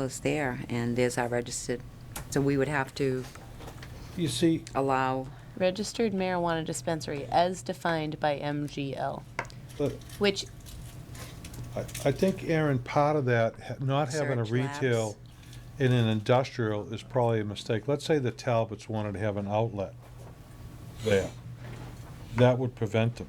is there, and there's our registered, so we would have to You see, allow, Registered marijuana dispensary as defined by MGL, look, which I I think, Aaron, part of that, ha- not having a Research labs. retail in an industrial is probably a mistake. Let's say the Talbots wanted to have an outlet there. That would prevent them.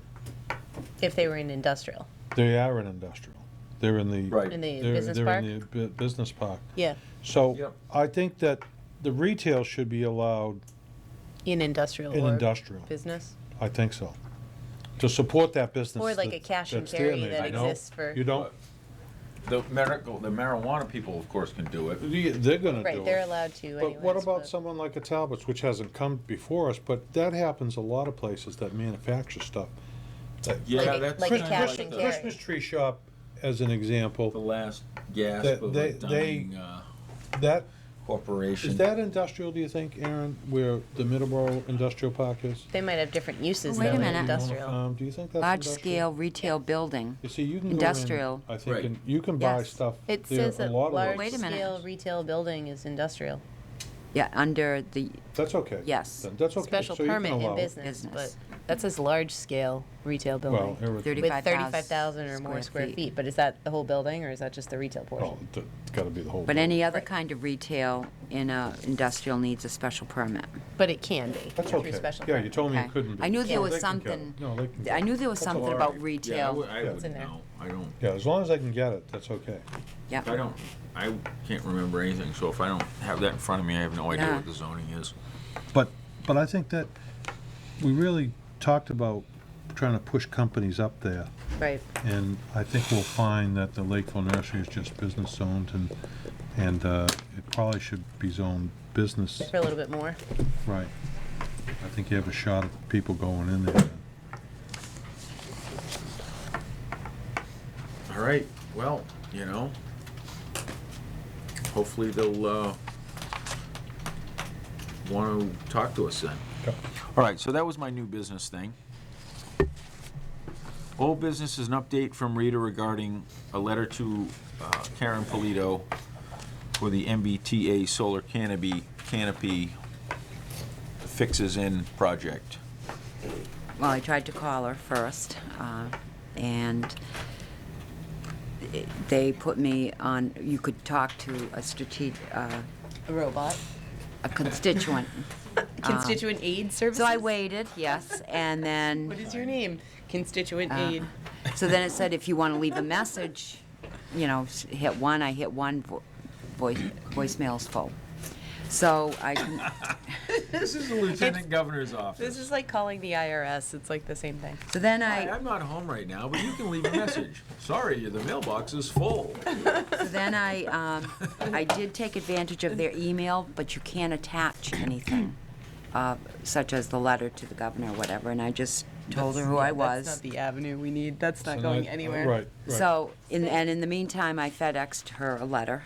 if they were in industrial, They are an industrial. They're in the. Right. in the they're- business they're park. in the bu- business park. Yeah, So Yep. I think that the retail should be allowed in industrial in or industrial. business. I think so. To support that business. Or like that- a cash and that's there carry now. that I know. exists for, You don't, The medical, the marijuana people, of course, can do it. they're gonna do it. right, they're allowed to anyways. But what about but- someone like a Talbot's, which hasn't come before us, but that happens a lot of places that manufacture stuff. Yeah, Like a- that's like a kinda cash like and the- carry. Christmas tree shop, as an The example, last gasp That- of they- a they- dying uh, that, corporation. is that industrial, do you think, Aaron, where the Middleborough Industrial Park is? They might have different uses Wait a though in minute. industrial. Um, Do you think that's industrial? large-scale retail building. You see, you can go in, industrial. I think, Right. and you can buy Yes. stuff It there, says a that lot of large Wait a those. minute. scale retail building is industrial, Yeah, under the, That's okay. Yes. Then That's okay. special So you can permit in allow it. business, but Business. that says large scale retail Well, building. everything, With 35,000 thirty-five thousand or more square square feet. feet, but is that the whole building or is that just the retail oh, portion? th- it's gotta be the whole. but building. any other Right. kind of retail in a industrial needs a special permit. But it can be. Oh. That's through okay. special Yeah, you permit. told me Okay. you couldn't do I it. knew there No, was they can get it. something- No, they can. get I it. knew there was That's all something right. about Yeah, I retail. would- I Yeah. would It's in there. know. I don't, Yeah, as long as I can get it, that's okay. Yeah. I don't, I can't remember anything, so if I don't have that in front of me, I have no idea Yeah. what the zoning is. But, but I think that we really talked about trying to push companies up there. Right, And I think we'll find that the Lakeville Nursery is just business zoned and, and uh, it probably should be zoned business, for a little bit more. right. I think you have a shot at people going in there. All right, well, you know, hopefully they'll, uh, want to talk to us then. Yep. All right, so that was my new business thing. Old business is an update from Rita regarding a letter to uh, Karen Polito for the MBTA solar canopy, canopy fixes in project. Well, I tried to call her first, uh, and it- they put me on, you could talk to a strategic, uh, A robot. a constituent. Constituent aid services. Um, So I waited, yes, and then. What is your name? Uh. Constituent aid. So then it said, if you want to leave a message, you know, s- hit one, I hit one, vo- voice, voicemail's full. So I, con- This is the lieutenant governor's office. This is like calling the IRS. It's like the same thing. so then Hi, I, I'm not home right now, but you can leave a message. Sorry, the mailbox is full. so then I, um, I did take advantage of their email, but you can't attach anything, uh, such as the letter to the governor or whatever, and I just told her who I was. That's not the avenue we need. That's not So going that- anywhere. Right, right. So, in, and in the meantime, I FedExed her a letter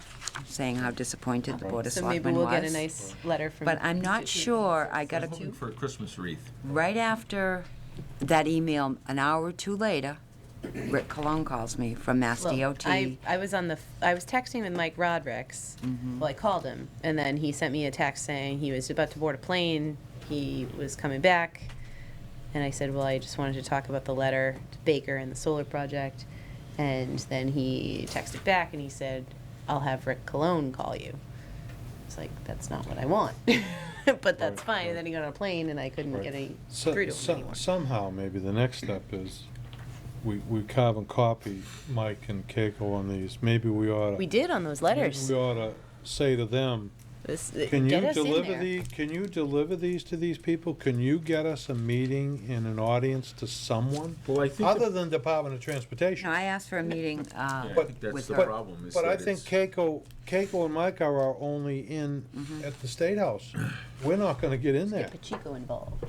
saying how disappointed the Board of So maybe Selectmen was. we'll get a nice letter from. But I'm not sure, I got I'm a, hoping for a Christmas wreath. right after that email, an hour or two later, Rick Cologne calls me from Mass Well, DOT. I, I was on the f- I was texting with Mike Rodricks. Well, I called him, and then he sent me a text saying he was about to board a plane. He was coming back, and I said, "Well, I just wanted to talk about the letter to Baker and the solar project." And then he texted back, and he said, "I'll have Rick Cologne call you." It's like that's not what I want, but that's Right, fine. right. And then he got on a plane, and I couldn't Right. get any So- through to him so- anymore. Somehow, maybe the next step is, we, we carve and copy Mike and Keiko on these, maybe we ought We to, did on those maybe letters. we ought to say to them, This, can you get us in deliver there. the, can you deliver these to these people? Can you get us a meeting and an audience to someone? Well, I think Other than Department of No, Transportation. I asked for a meeting, uh, Yeah, I But- think that's with the her. problem. is But I that think it's- Keiko, Keiko and Mike are our only in Mm-hmm. at the State House. We're not gonna get in there. Get Pacheco involved.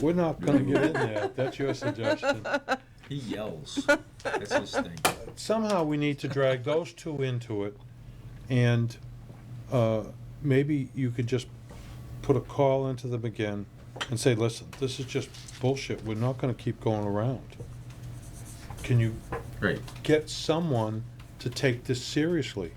We're not gonna get in there. That's your suggestion. He yells. That's his thing. somehow we need to drag those two into it, and uh, maybe you could just put a call into them again and say, listen, this is just bullshit, we're not gonna keep going around. Can you Right. get someone to take this seriously?